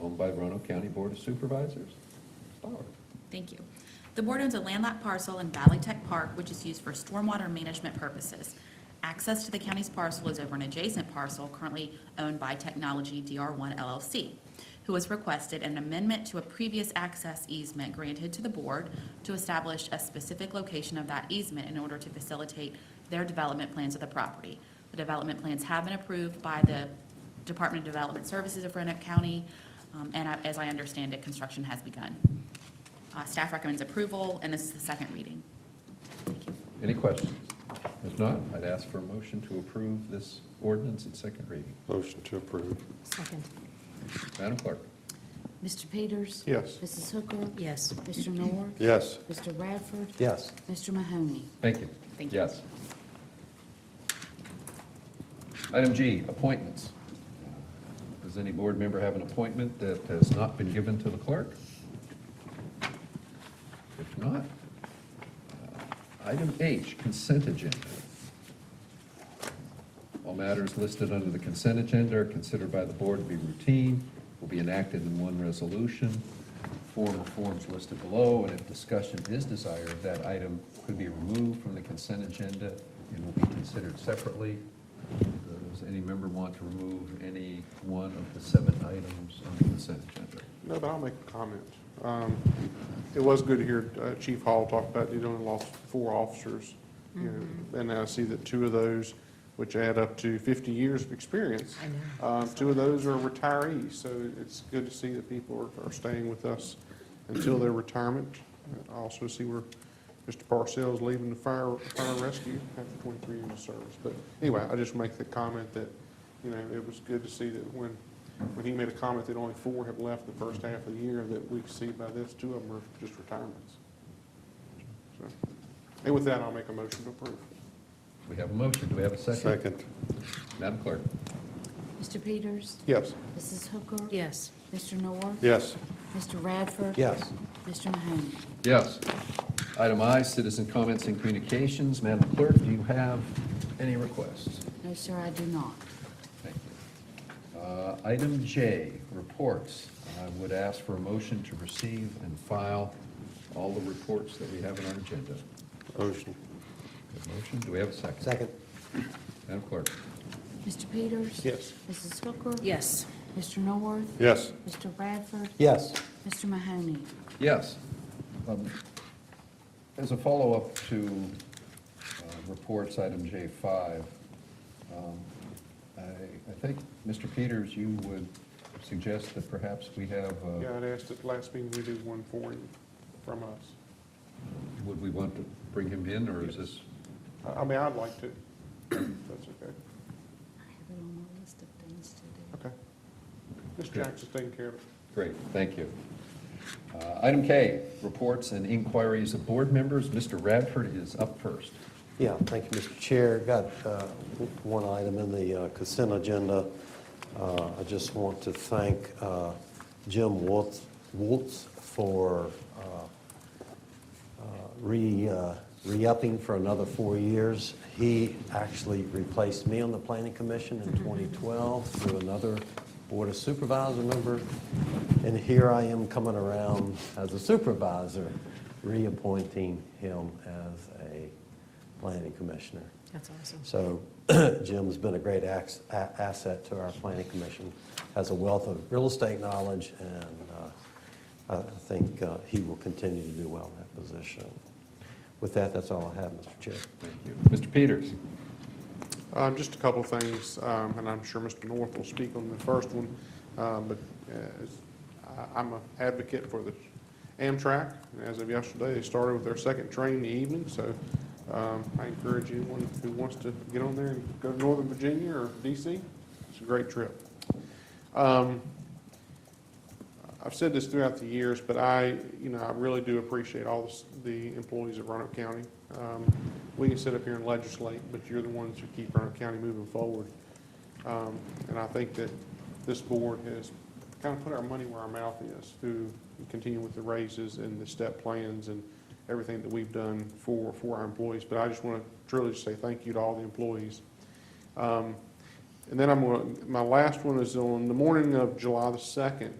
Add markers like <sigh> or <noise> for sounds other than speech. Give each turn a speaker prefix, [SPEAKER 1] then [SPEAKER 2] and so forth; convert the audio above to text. [SPEAKER 1] owned by Roanoke County Board of Supervisors. Bauer.
[SPEAKER 2] Thank you. The board owns a landlocked parcel in Valley Tech Park, which is used for stormwater management purposes. Access to the county's parcel is over an adjacent parcel currently owned by Technology DR1 LLC, who has requested an amendment to a previous access easement granted to the board to establish a specific location of that easement in order to facilitate their development plans of the property. The development plans have been approved by the Department of Development Services of Roanoke County, um, and I- as I understand it, construction has begun. Uh, Staff recommends approval, and this is the second reading.
[SPEAKER 1] Any questions? If not, I'd ask for a motion to approve this ordinance at second reading.
[SPEAKER 3] Motion to approve.
[SPEAKER 4] Second.
[SPEAKER 1] Madam Clerk?
[SPEAKER 4] Mr. Peters?
[SPEAKER 3] Yes.
[SPEAKER 4] Mrs. Hooker? Yes. Mr. Miller?
[SPEAKER 3] Yes.
[SPEAKER 4] Mr. Radford?
[SPEAKER 3] Yes.
[SPEAKER 4] Mr. Mahoney?
[SPEAKER 1] Thank you.
[SPEAKER 2] Thank you.
[SPEAKER 1] Yes. Item G, appointments. Does any board member have an appointment that has not been given to the clerk? If not, uh, item H, consent agenda. All matters listed under the consent agenda are considered by the board to be routine, will be enacted in one resolution, form or forms listed below, and if discussion is desired, that item could be removed from the consent agenda and will be considered separately. Does any member want to remove any one of the seven items on the consent agenda?
[SPEAKER 3] No, but I'll make a comment. Um, It was good to hear uh, Chief Hall talk about you only lost four officers. you know,
[SPEAKER 4] Mm-hmm.
[SPEAKER 3] And I see that two of those, which add up to 50 years of experience,
[SPEAKER 4] I know.
[SPEAKER 3] um, two of those are retirees. So it's good to see that people are- are staying with us until their retirement. I also see where Mr. Parcells leaving the fire, fire and rescue after 23 years of service. But anyway, I just make the comment that, you know, it was good to see that when, when he made a comment that only four have left the first half of the year, that we see by this, two of them are just retirements. So, And with that, I'll make a motion to approve.
[SPEAKER 1] We have a motion, do we have a second? Madam Clerk?
[SPEAKER 4] Mr. Peters?
[SPEAKER 3] Yes.
[SPEAKER 4] Mrs. Hooker? Yes. Mr. Miller?
[SPEAKER 3] Yes.
[SPEAKER 4] Mr. Radford?
[SPEAKER 3] Yes.
[SPEAKER 4] Mr. Mahoney?
[SPEAKER 1] Yes. Item I, citizen comments and communications. Madam Clerk, do you have any requests?
[SPEAKER 4] No, sir, I do not.
[SPEAKER 1] Thank you. Uh, Item J, reports. I would ask for a motion to receive and file all the reports that we have on our agenda.
[SPEAKER 3] Motion.
[SPEAKER 1] Good Motion, do we have a second? Madam Clerk?
[SPEAKER 4] Mr. Peters?
[SPEAKER 3] Yes.
[SPEAKER 4] Mrs. Hooker?
[SPEAKER 5] Yes.
[SPEAKER 4] Mr. Norworth?
[SPEAKER 3] Yes.
[SPEAKER 4] Mr. Radford?
[SPEAKER 3] Yes.
[SPEAKER 4] Mr. Mahoney?
[SPEAKER 1] Yes. Um, As a follow-up to uh, reports, item J5, um, I I think, Mr. Peters, you would suggest that perhaps we have, uh,
[SPEAKER 3] Yeah, I'd asked at the last meeting, we do one for him from us.
[SPEAKER 1] would we want to bring him in, or is this?
[SPEAKER 3] I- I mean, I'd like to, if that's okay.
[SPEAKER 4] I have it on my list of things to do.
[SPEAKER 3] Okay. Ms. Jackson's taking care of it.
[SPEAKER 1] Great, thank you. Uh, Item K, reports and inquiries of board members. Mr. Radford is up first.
[SPEAKER 6] Yeah, thank you, Mr. Chair. Got uh, w- one item in the uh, consent agenda. Uh, I just want to thank uh, Jim Woltz Woltz for uh, uh, re, uh, re-upping for another four years. He actually replaced me on the planning commission in 2012 through another board of supervisor member. And here I am coming around as a supervisor, reappointing him as a planning commissioner.
[SPEAKER 5] That's awesome.
[SPEAKER 6] So <clears throat> Jim's been a great ax- a- asset to our planning commission, has a wealth of real estate knowledge, and uh, I think uh, he will continue to do well in that position. With that, that's all I have, Mr. Chair.
[SPEAKER 1] Thank you. Mr. Peters?
[SPEAKER 3] Um, Just a couple of things, um, and I'm sure Mr. North will speak on the first one, um, but uh, as- I- I'm an advocate for the Amtrak. and As of yesterday, they started with their second train in the evening, so um, I encourage anyone who wants to get on there and go to Northern Virginia or DC. It's a great trip. Um, I've said this throughout the years, but I, you know, I really do appreciate all the s- the employees of Roanoke County. Um, We can sit up here and legislate, but you're the ones who keep Roanoke County moving forward. Um, And I think that this board has kind of put our money where our mouth is through continuing with the raises and the step plans and everything that we've done for, for our employees. But I just want to truly just say thank you to all the employees. Um, And then I'm, going. to my last one is on the morning of July the 2nd.